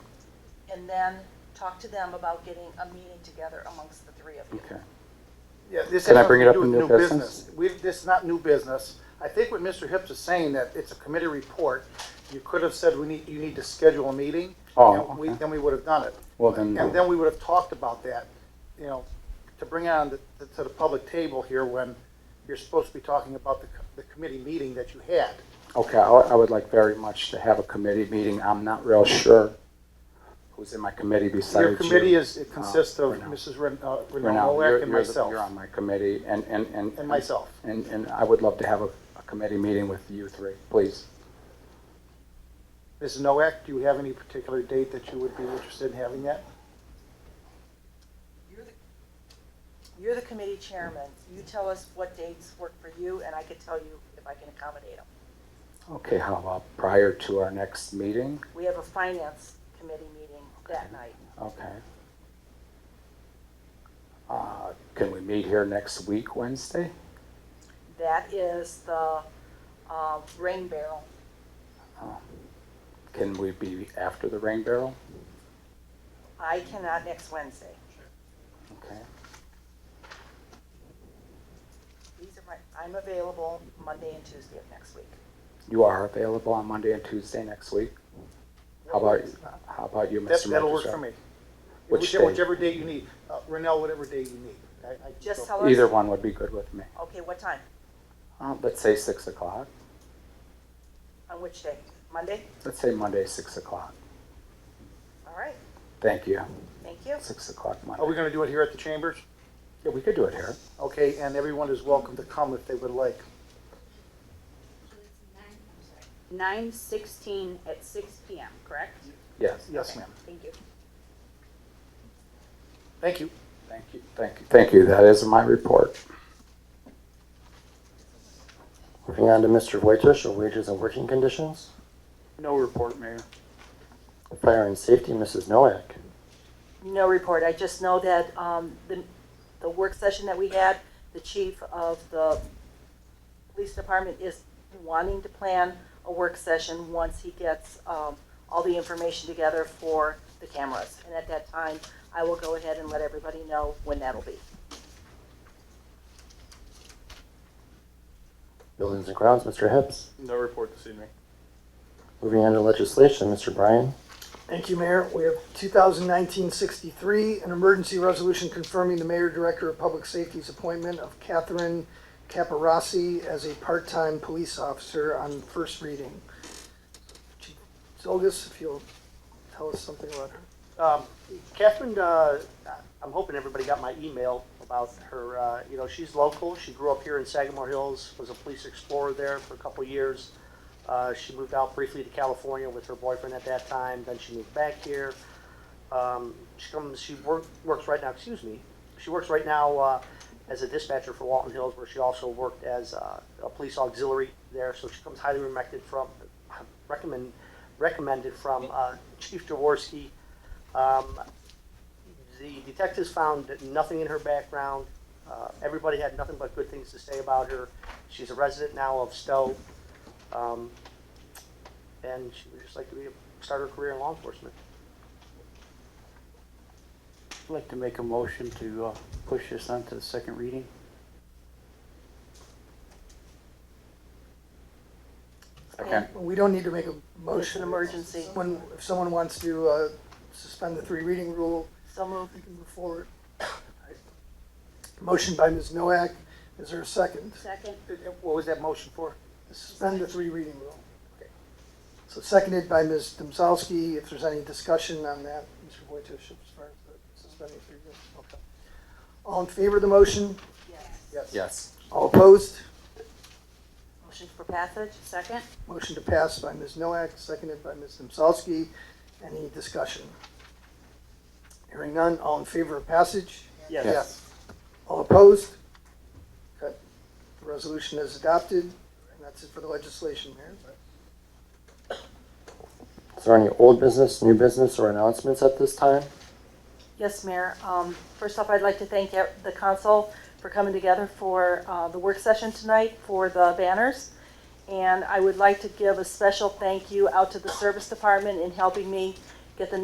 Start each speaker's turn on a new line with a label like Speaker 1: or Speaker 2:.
Speaker 1: and then talk to them about getting a meeting together amongst the three of you.
Speaker 2: Okay.
Speaker 3: Yeah, this
Speaker 2: Can
Speaker 3: has
Speaker 2: I bring it
Speaker 3: nothing to
Speaker 2: up
Speaker 3: do with
Speaker 2: in
Speaker 3: new
Speaker 2: new business?
Speaker 3: business. We, this is not new business. I think what Mr. Hips is saying, that it's a committee report, you could have said, we need, you need to schedule a meeting.
Speaker 2: Oh,
Speaker 3: and we-
Speaker 2: okay.
Speaker 3: Then we would have done it.
Speaker 2: Well, then-
Speaker 3: And then we would have talked about that, you know, to bring it on to, to the public table here when you're supposed to be talking about the, co- the committee meeting that you had.
Speaker 2: Okay, I I would like very much to have a committee meeting. I'm not real sure who's in my committee besides you.
Speaker 3: Your committee is, it
Speaker 2: Uh,
Speaker 3: consists of
Speaker 2: Renell.
Speaker 3: Mrs. Ren- uh,
Speaker 2: Renell,
Speaker 3: Renal
Speaker 2: you're-
Speaker 3: Nowak and
Speaker 2: you're the-
Speaker 3: myself.
Speaker 2: You're on my committee and, and, and.
Speaker 3: And myself.
Speaker 2: And, and I would love to have a, a committee meeting with you three, please.
Speaker 3: Mrs. Nowak, do you have any particular date that you would be interested in having that?
Speaker 1: You're the- You're the committee chairman. You tell us what dates work for you, and I can tell you if I can accommodate them.
Speaker 2: Okay, how about prior to our next meeting?
Speaker 1: We have a finance committee meeting that night.
Speaker 2: Okay. Uh, can we meet here next week, Wednesday?
Speaker 1: That is the uh, rain barrel.
Speaker 2: Can we be after the rain barrel?
Speaker 1: I cannot next Wednesday.
Speaker 2: Okay.
Speaker 1: These are my, I'm available Monday and Tuesday of next week.
Speaker 2: You are available on Monday and Tuesday next week? How about, how about you, Mr.
Speaker 3: That,
Speaker 2: Magistrate?
Speaker 3: that'll work for me.
Speaker 2: Which
Speaker 3: Whichever-
Speaker 2: day?
Speaker 3: Whichever day you need, uh, Renell, whatever day you need. I- I
Speaker 1: Just
Speaker 3: go-
Speaker 1: tell us.
Speaker 2: Either one would be good with me.
Speaker 1: Okay, what time?
Speaker 2: Uh, let's say six o'clock.
Speaker 1: On which day? Monday?
Speaker 2: Let's say Monday, six o'clock.
Speaker 1: All right,
Speaker 2: Thank you.
Speaker 1: thank you.
Speaker 2: Six o'clock
Speaker 3: Are we
Speaker 2: Monday.
Speaker 3: gonna do it here at the chambers?
Speaker 2: Yeah, we could do it here.
Speaker 3: Okay, and everyone is welcome to come if they would like.
Speaker 4: nine sixteen at six P M, correct?
Speaker 2: Yes.
Speaker 3: Yes, ma'am.
Speaker 4: Thank you.
Speaker 3: Thank you.
Speaker 2: Thank you, thank you, thank you. That is my report.
Speaker 5: Moving on to Mr. Whitefish, or wages and working conditions.
Speaker 2: No report, Mayor.
Speaker 5: Fire and safety, Mrs. Noack.
Speaker 1: No report. I just know that um, the, the work session that we had, the chief of the police department is wanting to plan a work session once he gets um, all the information together for the cameras. And at that time, I will go ahead and let everybody know when that'll be.
Speaker 5: Buildings and grounds, Mr. Hips.
Speaker 6: No report this evening.
Speaker 5: Moving on to legislation, Mr. Bryan.
Speaker 7: Thank you, Mayor. We have 2019-63, an emergency resolution confirming the Mayor Director of Public Safety's appointment of Catherine Caparossi as a part-time police officer on first reading. Chief Zolgis, if you'll tell us something about her.
Speaker 3: Um, Catherine, uh, I'm hoping everybody got my email about her, uh, you know, she's local. She grew up here in Sagamore Hills, was a police explorer there for a couple years. Uh, she moved out briefly to California with her boyfriend at that time, then she moved back here. Um, she comes, she work, works right now, excuse me, she works right now, uh, as a dispatcher for Walton Hills, where she also worked as, uh, a police auxiliary there, so she comes highly recommended from, recommend, recommended from, uh, Chief Jaworski. Um, the detectives found that nothing in her background. Uh, everybody had nothing but good things to say about her. She's a resident now of Stowe. Um, and she would just like to be, start her career in law enforcement.
Speaker 8: I'd like to make a motion to uh, push this on to the second reading.
Speaker 2: Okay.
Speaker 7: We don't need to make a motion.
Speaker 1: It's an emergency.
Speaker 7: When, if someone wants to uh, suspend the three reading rule,
Speaker 1: So moved.
Speaker 7: we can move forward. Motion by Ms. Noack. Is there a second?
Speaker 4: Second,
Speaker 3: What was that motion for?
Speaker 7: Suspend the three reading rule. So seconded by Ms. Domzowski. If there's any discussion on that, Mr. Wojciech, as far as the suspending three rules. Okay. All in favor of the motion?
Speaker 3: Yes.
Speaker 2: Yes.
Speaker 7: All opposed?
Speaker 1: Motion for passage?
Speaker 4: second,
Speaker 7: Motion to pass by Ms. Noack, seconded by Ms. Domzowski. Any discussion? Hearing none. All in favor of passage?
Speaker 3: Yes.
Speaker 7: All opposed? Okay. The resolution is adopted, and that's it for the legislation, Mayor.
Speaker 5: Is there any old business, new business, or announcements at this time?
Speaker 1: Yes, Mayor. Um, First off, I'd like to thank ev- the council for coming together for uh, the work session tonight for the banners. And I would like to give a special thank you out to the service department in helping me get the